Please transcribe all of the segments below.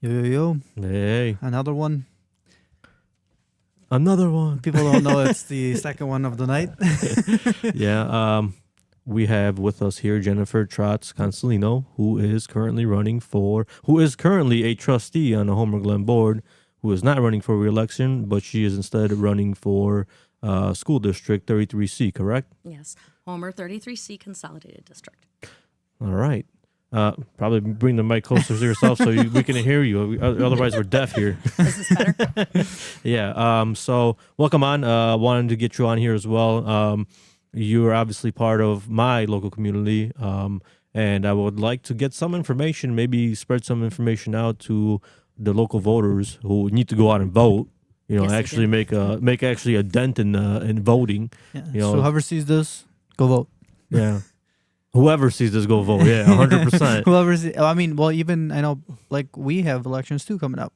Yo, yo, yo. Hey, Another one. another one. People don't know it's the second one of the night. yeah, um, we have with us here Jennifer Trotz Consolino, who is currently running for, who is currently a trustee on the Homer Glen board, who is not running for reelection, but she is instead running for uh, school district 33C, correct? Yes, Homer 33C Consolidated District. All right. Uh, probably bring the mic closer to yourself so you, we can hear you. Otherwise, we're deaf here. Is this better? Yeah. Um, so welcome on. Uh, wanted to get you on here as well. Um, you are obviously part of my local community. Um, and I would like to get some information, maybe spread some information out to the local voters who need to go out and vote. You know, Yes, they actually do. make a make actually a dent in uh, in voting. Yeah. Yo. So whoever sees this, go vote. Yeah. Whoever sees this, go vote. Yeah, hundred percent. Whoever see, I mean, well, even I know, like we have elections too coming up,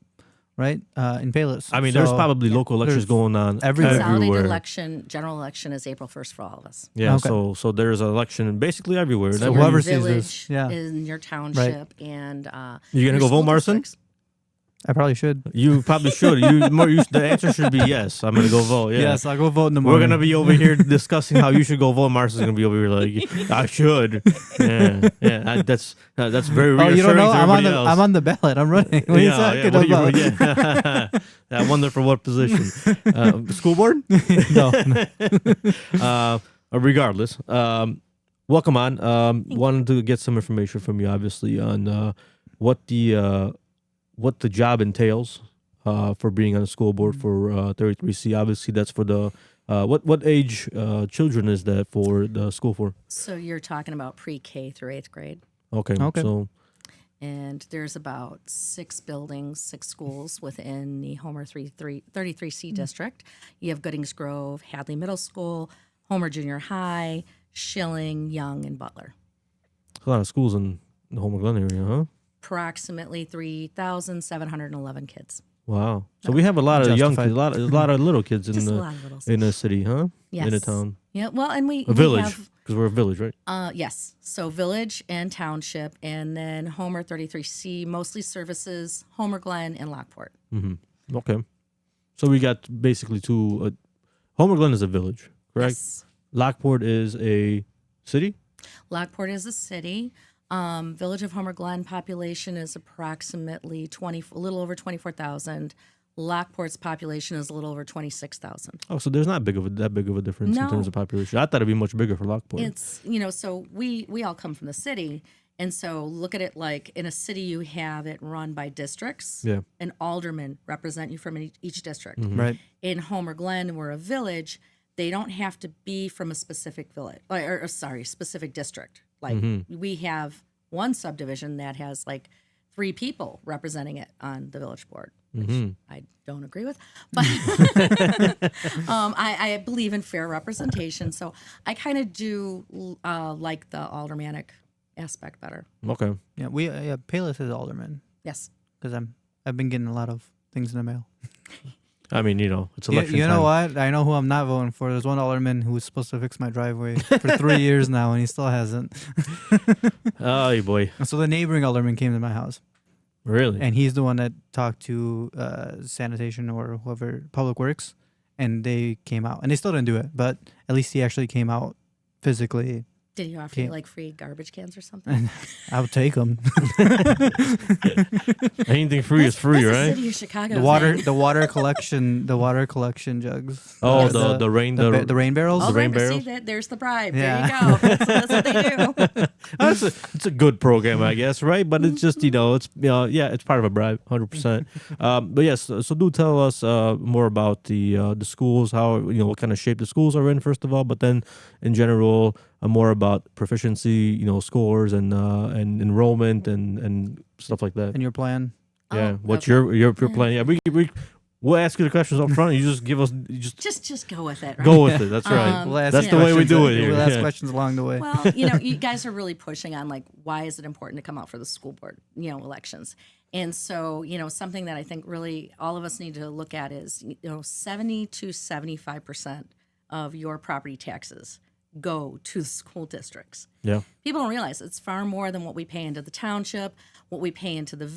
right? Uh, in Payless. I mean, there's So- probably local elections There's going on everywhere. Consolidated everywhere. election, general election is April 1st for all of us. Yeah, Okay. so so there's an election basically everywhere. So And your whoever every- sees village, this, yeah. in your township, and uh, You gonna your go vote, school Marcin? districts. I probably should. You probably should. You more. You, the answer should be yes. I'm gonna go vote. Yeah. Yes, I'll go vote in the We're morning. gonna be over here discussing how you should go vote. Marcus is gonna be over here like I should. Yeah, yeah. I, that's uh, that's very Oh, reassuring you don't know? to I'm on everybody the else. I'm on the ballot. I'm running. What are you yeah, yeah, talking what do you- about? yeah. I wonder for what position. Uh, school board. no, no. uh, regardless, um, welcome on. Um, wanted to get some information from you, obviously, on uh, what the uh, what the job entails uh, for being on the school board Mm-hmm. for uh, 33C. Obviously, that's for the uh, what what age uh, children is that for the school for? So you're talking about pre-K through eighth grade, Okay, Okay. so and there's about six buildings, six schools within the Homer 33 Mm-hmm. 33C district. You have Goodings Grove, Hadley Middle School, Homer Junior High, Schilling, Young, and Butler. a lot of schools in the Homer Glen area, huh? Approximately 3,711 kids. Wow. So we have a lot of young Justified. kids, a lot, a lot of little kids in Just a the lot of littles. in the city, huh? In a Yes. town, Yeah, well, and we a we village, have- because we're a village, right? Uh, yes. So village and township, and then Homer 33C, mostly services, Homer Glen, and Lockport. Okay. So we got basically two. Uh, Homer Glen is a village, correct? Yes. Lockport is a city. Lockport is a city. Um, village of Homer Glen population is approximately 20, a little over 24,000. Lockport's population is a little over 26,000. Oh, so there's not big of a, that big of a difference in terms No. of population. I thought it'd be much bigger for Lockport. It's, you know, so we, we all come from the city. And so look at it like in a city, you have it run by districts. yeah. An alderman represent you from each, each district. right? in Homer Glen were a village, they don't have to be from a specific village or, or, sorry, specific district. Like we have one subdivision that has like three people representing it on the village board, which I don't agree with, but um, I, I believe in fair representation. So I kind of do uh, like the aldermanic aspect better. Okay. Yeah, we uh, yeah. Payless is alderman Yes. because I'm I've been getting a lot of things in the mail. I mean, you know, it's You, election you know time. what? I know who I'm not voting for. There's one alderman who was supposed to fix my driveway for three years now, and he still hasn't. Oh boy, And so the neighboring alderman came to my house, really? and he's the one that talked to uh, sanitation or whoever public works, and they came out, and they still didn't do it, but at least he actually came out physically. Did you offer Okay. you like free garbage cans or something? I would take him. Anything free is free, That's the right? city of Chicago. The water, thing. the water collection, the water collection jugs. Oh, the- the rain- the, the- ba- the rain barrels. The Oh, rain there- barrels? See, that, there's the bribe. Yeah. There you go. That's, that's what they do. That's a, it's a good program, I guess, right? But it's just you know, it's you know, yeah, it's part of a bribe, hundred percent. Um, but yes, so do tell us uh, more about the uh, the schools, how you know what kind of shape the schools are in, first of all, but then in general, uh, more about proficiency, you know, scores and uh, and enrollment and and stuff like that. And your plan? yeah, Oh, what's okay. your your your plan? Yeah, we we we'll ask you the questions up front. You just give us you just Just just go with it. Right? go with it. That's right. Um, We'll ask That's the way we questions- do it here, We'll ask yeah. questions along the way. Well, you know, you guys are really pushing on like why is it important to come out for the school board, you know, elections. And so, you know, something that I think really all of us need to look at is, you know, 70 to 75% of your property taxes go to the school districts. Yeah. People don't realize it's far more than what we pay into the township, what we pay into the